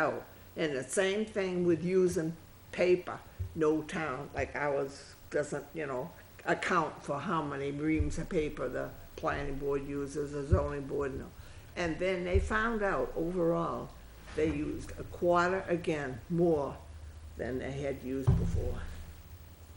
out. And the same thing with using paper. No town, like ours, doesn't, you know, account for how many reams of paper the planning board uses, the zoning board, no. And then they found out overall, they used a quarter again more than they had used before.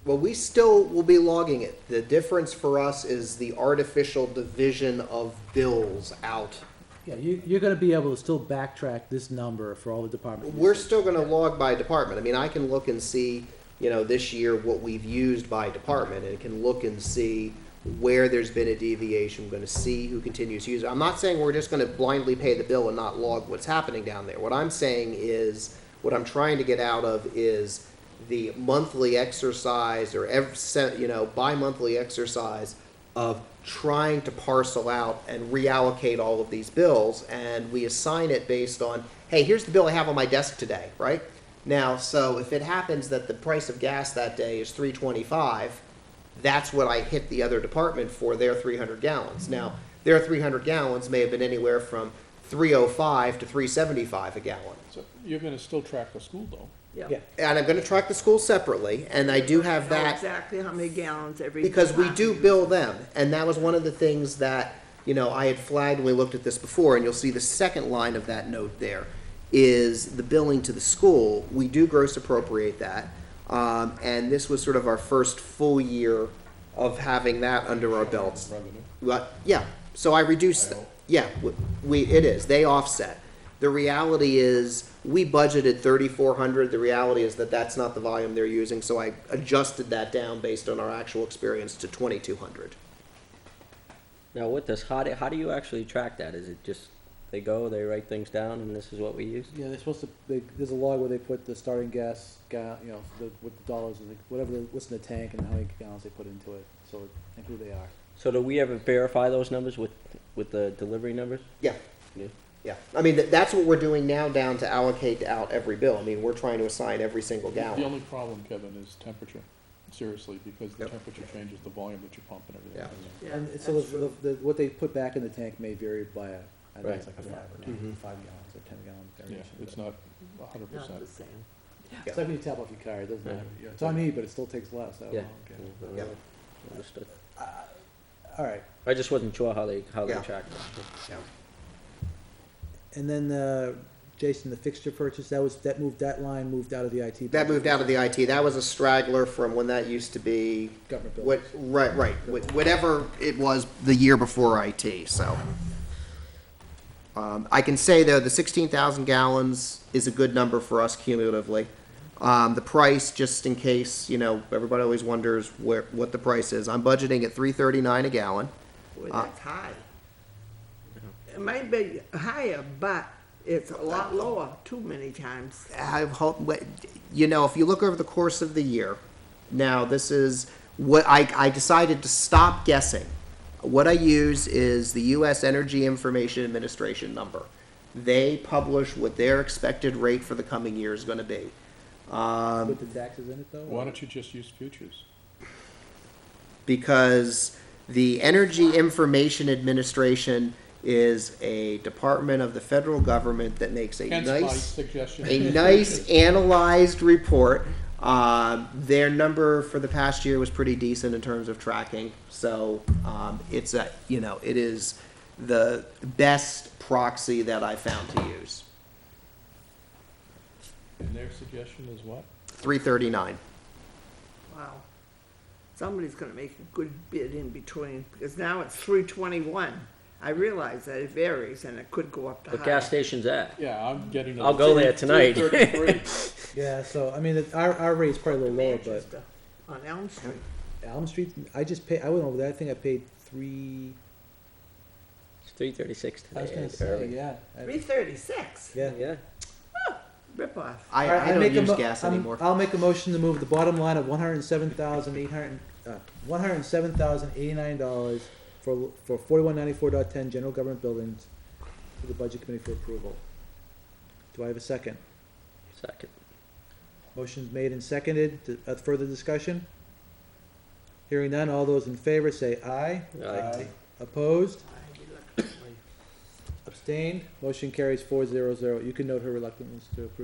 Well, we still will be logging it. The difference for us is the artificial division of bills out. Yeah, you, you're gonna be able to still backtrack this number for all the department. We're usage. still gonna log by department. I mean, I can look and see, you know, this year what we've used by department and can look and see where there's been a deviation, gonna see who continues to use it. I'm not saying we're just gonna blindly pay the bill and not log what's happening down there. What I'm saying is, what I'm trying to get out of is the monthly exercise or every, se- you know, bi-monthly exercise of trying to parcel out and reallocate all of these bills, and we assign it based on, hey, here's the bill I have on my desk today, right? Now, so if it happens that the price of gas that day is three twenty-five, that's what I hit the other department for their three hundred gallons. Now, their three hundred gallons may have been anywhere from three oh five to three seventy-five a gallon. So you're gonna still track the school though? Yeah. Yeah. And I'm gonna track the school separately, and I do have Know that. Exactly how many gallons every. because we department do uses. bill them, and that was one of the things that, you know, I had flagged when we looked at this before, and you'll see the second line of that note there is the billing to the school, we do gross appropriate that, um, and this was sort of our first full year of having that under our belts. Revenue. Well, yeah, so I reduced, the- yeah, w- we, it is, they offset. The reality is, we budgeted thirty-four hundred, the reality is that that's not the volume they're using, so I adjusted that down based on our actual experience to twenty-two hundred. Now with this, how do, how do you actually track that? Is it just, they go, they write things down and this is what we use? Yeah, they're supposed to, they, there's a log where they put the starting gas, ga, you know, the, with the dollars, and the- whatever, the- what's in the tank and how many gallons they put into it, so, and who they are. So do we ever verify those numbers with, with the delivery numbers? Yeah, Yeah. yeah, I mean, tha- that's what we're doing now down to allocate out every bill, I mean, we're trying to assign every single The gallon. only problem, Kevin, is temperature, seriously, because the Yep. temperature changes the volume that you pump and everything. Yeah. goes Yeah, And that's so the, true. the, the- what they put back in the tank may vary by, a- I think it's Right. like a five or nine, five gallons or ten gallon in. Yeah, variation. it's but- not a hundred Not the percent. same. It's like when you tap off your car, it doesn't Yeah. matter, You know, it's on me, but it still takes less, I don't know. Yeah. okay. Yeah. Understood. All right, I just wasn't sure how they, how they Yeah. tracked it. Yeah. and then, uh, Jason, the fixture purchase, that was, that moved, that line moved out of the IT. That moved out of the budget. IT, that was a straggler from when that used to be, Government what, buildings. right, right, wh- whatever it was the year before IT, so. Um, I can say though, the sixteen thousand gallons is a good number for us cumulatively. Um, the price, just in case, you know, everybody always wonders where, what the price is, I'm budgeting at three thirty-nine a gallon. Boy, that's high. It might be higher, but it's a lot lower too many times. I hope, what- you know, if you look over the course of the year, now this is what I, I decided to stop guessing. What I use is the U.S. Energy Information Administration number. They publish what their expected rate for the coming year is going to be. With the taxes in it though? Why don't you just use futures? because the Energy Information Administration is a department of the federal government that makes a Hence my nice, suggestion. a nice analyzed report. Um, their number for the past year was pretty decent in terms of tracking, so um, it's a you know it is the best proxy that I found to use. And their suggestion is what? Three thirty nine. Wow. Somebody's gonna make a good bid in between, because now it's three twenty-one. I realize that it varies and it could go up to higher. What gas station's that? Yeah, I'm getting. I'll go there tonight. Yeah, so, I mean, it- our, our rate's probably a little lower, but Manchester On Elm Street. Elm Street, I just paid, I went over there, I think I paid three, It's three thirty-six I was today. gonna say, early. yeah. I- Three thirty-six, Yeah. Yeah. ripoff. I, All right, I I'd don't make a use mo- gas I'm- anymore. I'll make a motion to move the bottom line of one hundred and seven thousand eight hundred, uh, one hundred and seven thousand eighty-nine dollars for, for forty-one ninety-four dot ten, general government buildings, to the budget committee for approval. Do I have a second? Second. Motion's made and seconded, D- uh, further discussion? Hearing none, all those in favor say aye. Aye. Opposed? Abstained, motion carries four zero zero. You can note her reluctance to approve.